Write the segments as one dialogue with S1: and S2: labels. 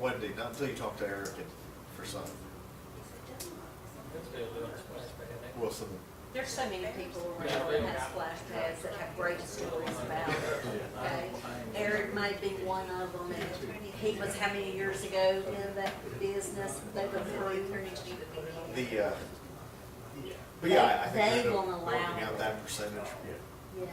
S1: Wendy, not until you talk to Eric and for some, Wilson.
S2: There's so many people around that have splash pads that have great stories about it, okay? Eric might be one of them, and he was how many years ago in that business, they were through.
S1: The, uh, but yeah, I- I
S2: They-
S1: think
S2: they
S1: you end
S2: won't
S1: up
S2: allow
S1: working
S2: it.
S1: out that percentage.
S2: Yeah,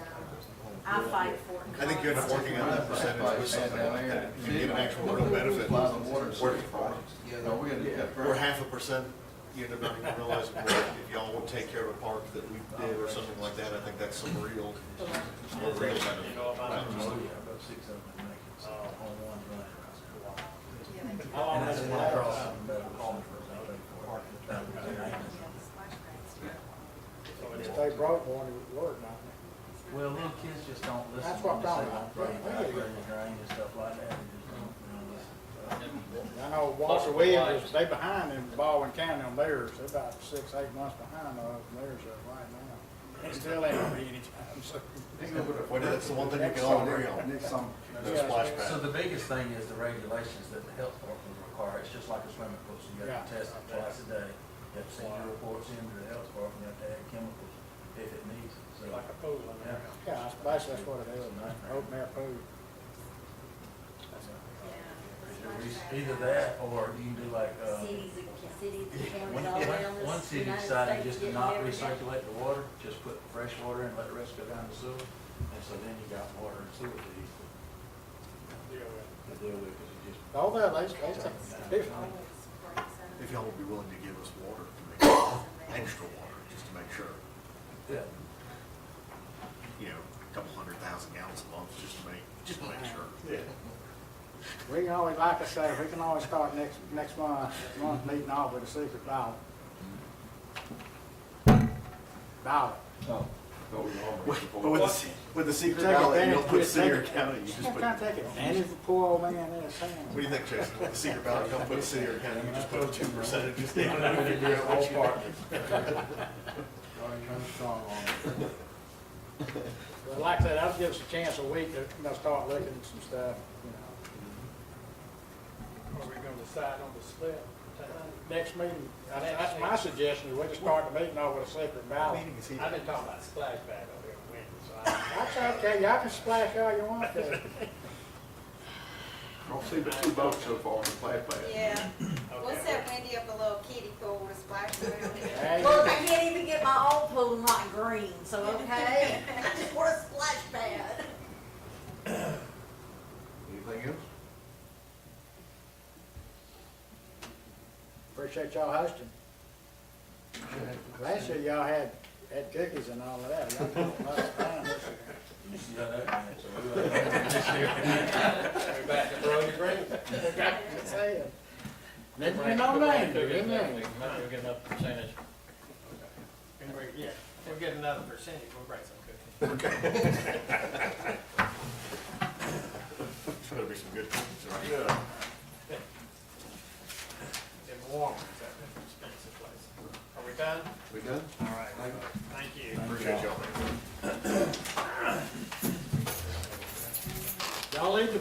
S2: I fight for it.
S1: I think you end up working out that percentage with something like that. You get an actual real benefit. Working for it. Or half a percent, you end up not even realizing, well, if y'all would take care of a park that we did or something like that, I think that's some real, some real benefit. Not just-
S3: If they broke one, it would work, not
S4: Well, little kids just don't listen.
S3: That's what I'm talking about.
S4: Right, right, drain and stuff like that, they just don't, you know, listen.
S3: I know Walter Williams, was- they behind in Baldwin County on theirs, they're about six, eight months behind on theirs uh, right now. They still ain't gonna be anytime soon.
S1: Well, that's the one thing you can all agree on, those splash
S4: So
S1: pads.
S4: the biggest thing is the regulations that the health department require, it's just like a swimming pool, so you have to
S3: Yeah.
S4: test it twice a day. You have to send your reports in to the health department, you have to add chemicals if it needs, it. so.
S5: Like a pool in
S4: Yeah.
S5: there.
S3: Yeah, that's basically that's what it is, open air food.
S4: Either that, or you can do like, uh,
S2: Cities, and- cities, and counties all around
S4: one,
S2: this.
S4: one city
S2: United
S4: decided
S2: States
S4: just to
S2: did
S4: not
S2: everything.
S4: recirculate the water, just put fresh water and let the rest go down the sewer. And so then you got water and sewer to use to deal with, because it just
S3: All that, they, they, they, different.
S1: If y'all would be willing to give us water, to make extra water, just to make sure.
S4: Yeah,
S1: you know, a couple hundred thousand gallons a month, just to make, just to make sure.
S3: we can always, like I say, we can always start next, next month, month meeting off with a secret ballot. Ballot.
S1: But with the, se- with the secret
S3: Take
S1: ballot, you
S3: advantage,
S1: don't put
S3: just
S1: city or
S3: take-
S1: county, you just
S3: I'm
S1: put.
S3: trying
S1: What
S3: to take advantage of the poor old man in his hand.
S1: do you think, Jason? With the secret ballot, you don't put city or county, you just put two percent, just down.
S4: I'm gonna do it all partners. Already come strong on it.
S3: Well, Like I said, that'll give us a chance a week to, you know, start looking at some stuff, you know.
S5: Are we gonna decide on the split?
S3: Next meeting, I think that's my suggestion, is we just start the meeting off with a secret ballot.
S1: Meeting is here.
S5: I've been talking about splash pad over here in winter, so I.
S3: That's okay, y'all can splash all you want to.
S6: I've seen but two boats so far on the flat pad.
S7: Yeah, what's
S5: Okay.
S7: that Wendy up a little kiddie pool with splash around it?
S3: Hey,
S2: Look, I can't even get my own pool not green, so okay, I just want a splash pad.
S6: Anything else?
S3: Appreciate y'all hosting. Last year y'all had, had cookies and all of that. Y'all had a lot of fun this year.
S4: You see how that went, so uh, we like-
S5: We're back to Brody Green.
S3: I'm saying. Let me know, man, let me know.
S8: We'll get another percentage.
S5: And we're, yeah, we're getting another percentage, we'll bring some cookies.
S1: It's gonna be some good things, right?
S6: Yeah.
S5: In Warren, is that an expensive place? Are we done?
S6: We done?
S5: All right, thank you.
S1: Appreciate y'all.
S3: Y'all leave the